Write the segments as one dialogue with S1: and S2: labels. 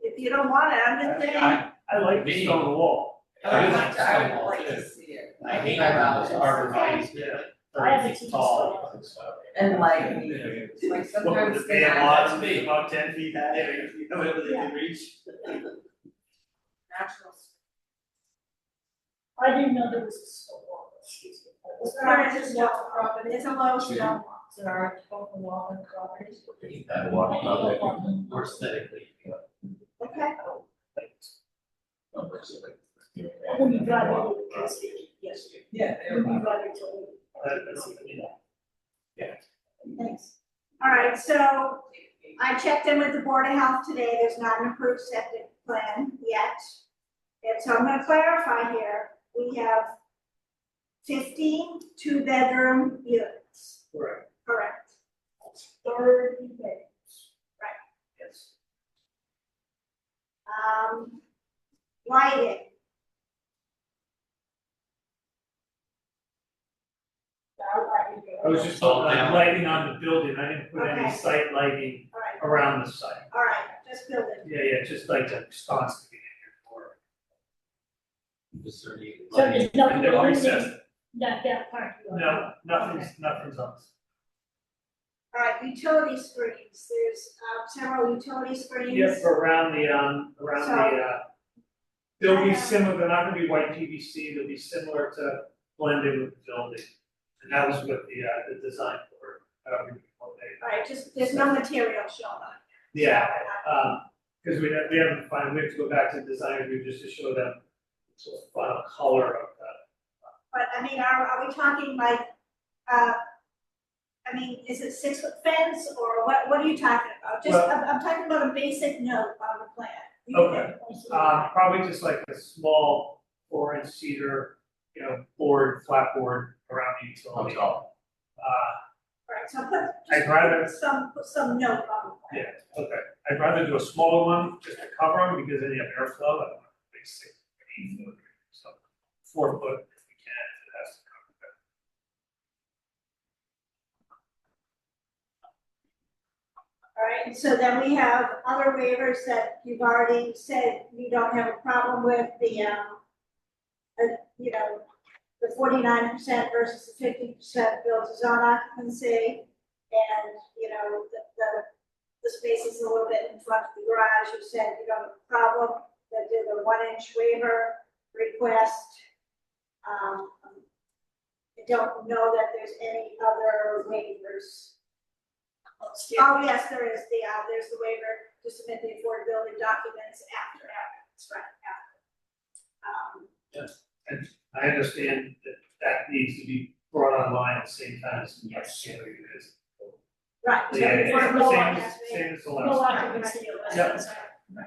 S1: if you don't want it, I'm just saying.
S2: I, I like the stone wall.
S3: I
S2: I
S3: would like,
S2: like
S3: to- I
S2: stone
S3: would
S2: wall
S3: like to
S2: too.
S3: see it.
S2: I hate how those arborvitae's
S4: Yeah.
S2: get
S4: I have a
S2: thirty
S4: teacher's
S2: feet tall.
S3: And like,
S2: Yeah.
S3: like
S2: What
S3: sometimes
S2: would
S3: they
S2: they have
S3: have
S2: lots of feet, about ten feet high, if you know whether they can reach?
S3: natural.
S4: I didn't know there was a stone wall, excuse me.
S1: It's not just a wall property, it's a low stone wall, there are both the wall and properties.
S2: That walk, more aesthetically.
S1: Okay,
S4: When you drive over the cascade, yes.
S3: Yeah.
S4: When you drive into the-
S1: thanks. All right, so I checked in with the Board of Health today, there's not an approved septic plan yet. And so I'm gonna clarify here, we have 15 two two-bedroom units,
S2: Correct,
S1: correct?
S4: Thirty minutes.
S2: yes.
S1: Um, lighting,
S4: I like it.
S2: I was just talking about lighting on the building, I didn't put
S1: Okay.
S2: any site lighting
S1: all right,
S2: around the site.
S1: all right, just building.
S2: Yeah, yeah, just like the sconce to get in here for.
S4: So there's nothing
S2: And they're all
S4: limiting
S2: accessed.
S4: that, that part.
S2: No, nothing's, nothing's on.
S1: All right, utility screens, there's uh, several utility screens.
S2: Yes, around the, um, around the, uh, they'll be similar, they're not gonna be white PVC, they'll be similar to blended with the building. And that was what the, uh, the design for, however you call it.
S1: All right, just, there's no material shown on it.
S2: Yeah, um, cause we have, we haven't found, we have to go back to the design review just to show them sort of final color of that.
S1: But I mean, are, are we talking like, uh, I mean, is it six foot fence or what, what are you talking about? Just,
S2: Well-
S1: I'm, I'm talking about a basic note on the plan. You-
S2: Okay. Uh, probably just like a small four inch cedar, you know, board, flat board around the utility. Uh,
S1: All right, so put,
S2: I'd rather-
S1: just some, put some note on the plan.
S2: Yeah, okay, I'd rather do a smaller one, just to cover them, because then you have airflow, I don't want to make six, eight foot, so four foot if we can, if it has to cover that.
S1: All right, and so then we have other waivers that you've already said you don't have a problem with, the, um, uh, you know, the forty-nine percent versus the fifty percent built zone occupancy, and, you know, the, the, the space is a little bit in front of the garage, you said you don't have a problem, that did the one-inch waiver request. Um, I don't know that there's any other waivers. Oh, yes, there is the, uh, there's the waiver to submit the affordability documents after, after, that's right, after. Um,
S2: I understand that that needs to be brought online at the same time as the next scenario is.
S1: right, so
S2: Yeah,
S1: before
S2: yeah,
S1: the
S2: yeah,
S1: law
S2: same,
S1: has
S2: as-
S1: been-
S2: same as the
S4: No
S2: last.
S4: occupancy,
S2: Yeah.
S4: that's right.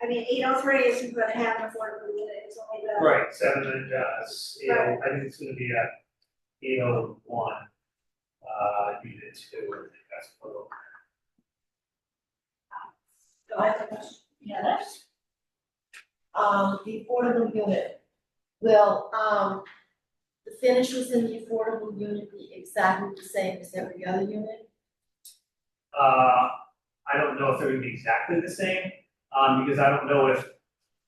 S1: I mean, eight oh three isn't gonna have an affordable unit, it's only the.
S2: Right, seven and, uh, s- you know, I think it's gonna be a, you know, one, uh, unit two, I think that's what it'll-
S3: I have a question.
S4: Yes.
S3: Um, the affordable unit, will, um, the finishes in the affordable unit be exactly the same as every other unit?
S2: Uh, I don't know if they're gonna be exactly the same, um, because I don't know if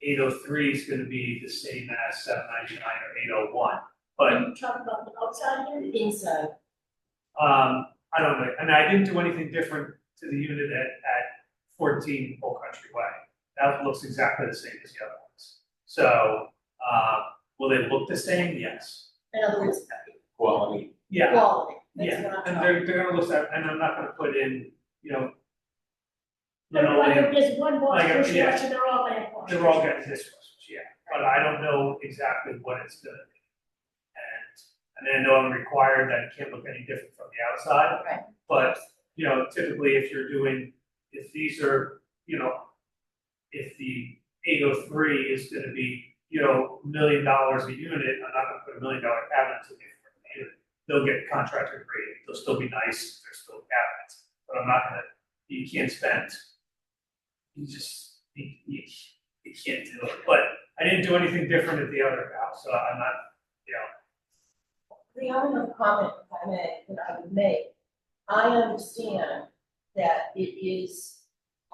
S2: eight oh three is gonna be the same as seven ninety-nine or eight oh one. But,
S4: You talk about the outside unit,
S3: Inside,
S2: um, I don't know, I mean, I didn't do anything different to the unit at, at fourteen Old Country Way. That looks exactly the same as the other ones. So, uh, will they look the same? Yes.
S3: in other words,
S5: quality.
S2: Yeah,
S3: quality, that's what I'm
S2: yeah,
S3: talking
S2: and
S3: about.
S2: they're, they're gonna look, that- and I'm not gonna put in, you know,
S4: but
S2: linoleum
S4: like, there's one wash,
S2: Like a-
S4: dishwasher,
S2: yeah.
S4: they're all lamp washers.
S2: They're all getting dishwashers, yeah, but I don't know exactly what it's gonna be. And, and I know I'm required that it can't look any different from the outside.
S3: Right.
S2: But, you know, typically if you're doing, if these are, you know, if the eight oh three is gonna be, you know, million dollars a unit, I'm not gonna put a million dollar cabinet in the unit. They'll get contractor grade, they'll still be nice, they're still cabinets, but I'm not gonna, you can't spend. You just, you, you you can't do it, but I didn't do anything different at the other house, so I'm not, you know,
S3: The only comment, if I may, that I would make, I understand that it is